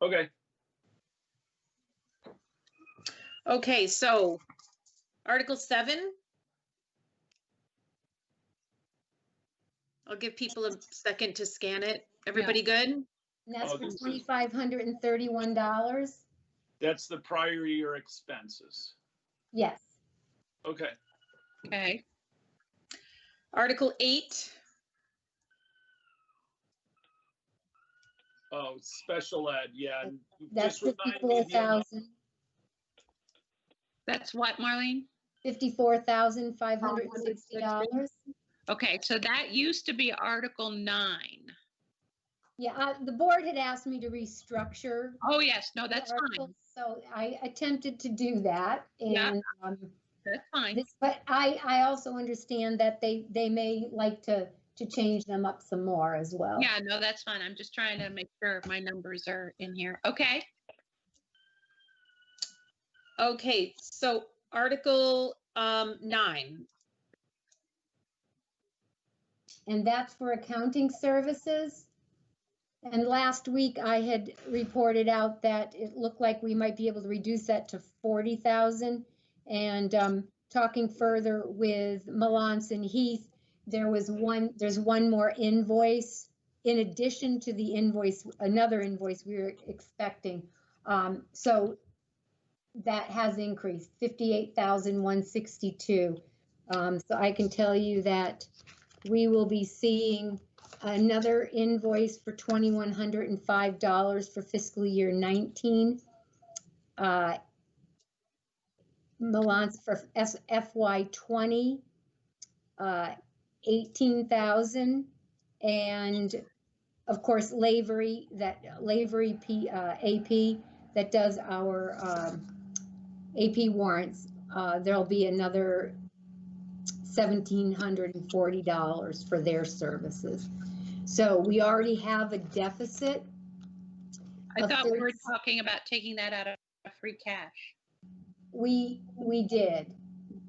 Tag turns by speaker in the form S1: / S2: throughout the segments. S1: Okay,
S2: Okay, so Article seven. I'll give people a second to scan it. Everybody good?
S3: And that's
S1: Oh,
S3: for
S1: this is-
S3: twenty-five hundred and thirty-one dollars?
S1: that's the prior year expenses.
S3: Yes.
S1: Okay,
S2: Okay. Article eight,
S1: oh, special ed, yeah. and
S3: That's
S1: just remind me
S3: fifty-four
S1: the amount.
S3: thousand,
S4: That's what, Marlene?
S3: fifty-four thousand, five hundred and sixty dollars.
S4: Okay, so that used to be Article 9.
S3: Yeah, I, the board had asked me to restructure.
S4: Oh, yes, no,
S3: the
S4: that's
S3: article,
S4: fine.
S3: So I attempted to do that
S4: Yeah.
S3: and, um,
S4: That's fine.
S3: this- but I, I also understand that they, they may like to, to change them up some more as well.
S4: Yeah, no, that's fine. I'm just trying to make sure my numbers are in here. Okay,
S2: okay, so Article um nine,
S3: and that's for accounting services. And last week I had reported out that it looked like we might be able to reduce that to forty thousand. And um, talking further with Melanson Heath, there was one, there's one more invoice in addition to the invoice, another invoice we were expecting. Um, So that has increased, fifty-eight thousand one sixty-two. Um, So I can tell you that we will be seeing another invoice for twenty-one hundred and five dollars for fiscal year nineteen. Uh, Milan's for S- FY twenty, uh, eighteen thousand, and of course, Lavery, that Lavery P, uh, AP, that does our, um, AP warrants. Uh, there'll be another $1,740 for their services. So we already have a deficit.
S4: I
S3: Of
S4: thought we were
S3: course.
S4: talking about taking that out of free cash.
S3: We, we did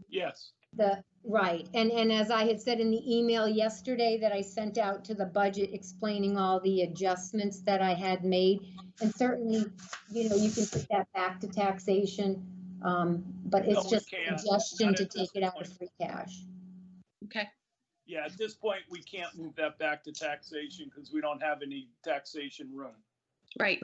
S1: Yes,
S3: the, right. And, and as I had said in the email yesterday that I sent out to the budget explaining all the adjustments that I had made. And certainly, you know, you can put that back to taxation. um, But
S1: No,
S3: it's
S1: we
S3: just a
S1: can't.
S3: suggestion
S1: Not
S3: to
S1: at this
S3: take it out of
S1: point.
S3: free cash.
S4: Okay,
S1: yeah, at this point, we can't move that back to taxation because we don't have any taxation room.
S4: right.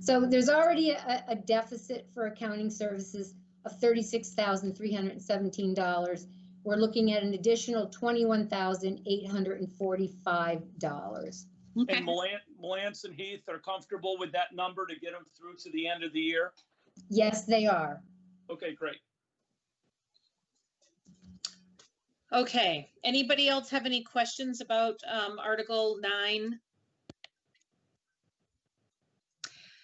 S3: So there's already a, a deficit for accounting services of thirty-six thousand, three hundred and seventeen dollars. We're looking at an additional twenty-one thousand, eight hundred and forty-five dollars.
S4: Okay,
S1: And Melan, Melanson Heath are comfortable with that number to get them through to the end of the year?
S3: Yes, they are.
S1: Okay, great.
S2: okay. Anybody else have any questions about um Article nine?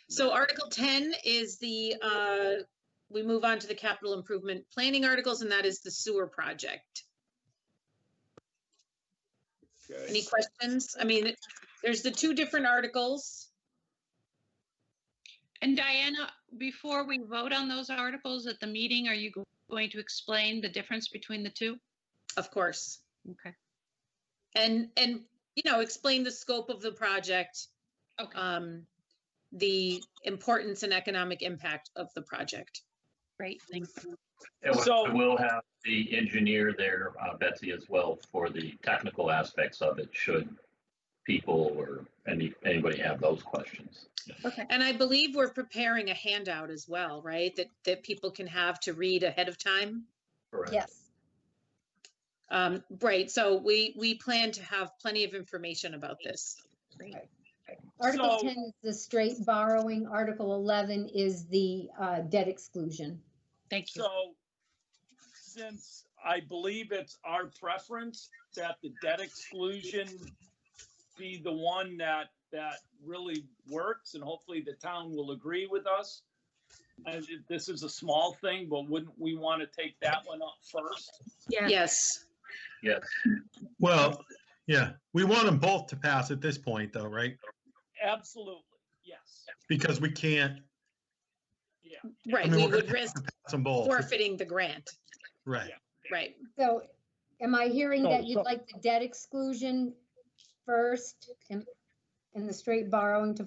S2: So Article ten is the uh, we move on to the capital improvement planning articles, and that is the sewer project. Any
S1: Okay.
S2: questions? I mean, it- there's the two different articles.
S4: and Diana, before we vote on those articles at the meeting, are you go- going to explain the difference between the two?
S2: Of course.
S4: Okay.
S2: And, and, you know, explain the scope of the project,
S4: Okay,
S2: um, the importance and economic impact of the project.
S4: great, thanks.
S5: And we-
S1: So-
S5: We'll have the engineer there, uh, Betsy, as well, for the technical aspects of it, should people or any, anybody have those questions.
S2: And I believe we're preparing a handout as well, right? That, that people can have to read ahead of time.
S5: Correct.
S3: Yes.
S2: Um, right, so we, we plan to have plenty of information about this.
S3: Article
S1: So-
S3: ten is the straight borrowing. Article eleven is the, uh, debt exclusion.
S4: Thank you.
S1: So since I believe it's our preference that the debt exclusion be the one that, that really works and hopefully the town will agree with us. And if this is a small thing, but wouldn't we want to take that one up first?
S4: Yeah.
S2: Yes,
S6: Well, yeah, we want them both to pass at this point though, right?
S1: Absolutely, yes,
S6: Because we can't
S1: yeah.
S2: right,
S6: mean,
S2: we
S6: we're gonna
S2: would risk
S6: pass them both,
S2: forfeiting the grant,
S6: right?
S2: right?
S3: So am I hearing that
S1: So-
S3: you'd
S1: so-
S3: like the debt exclusion first and, and the straight borrowing to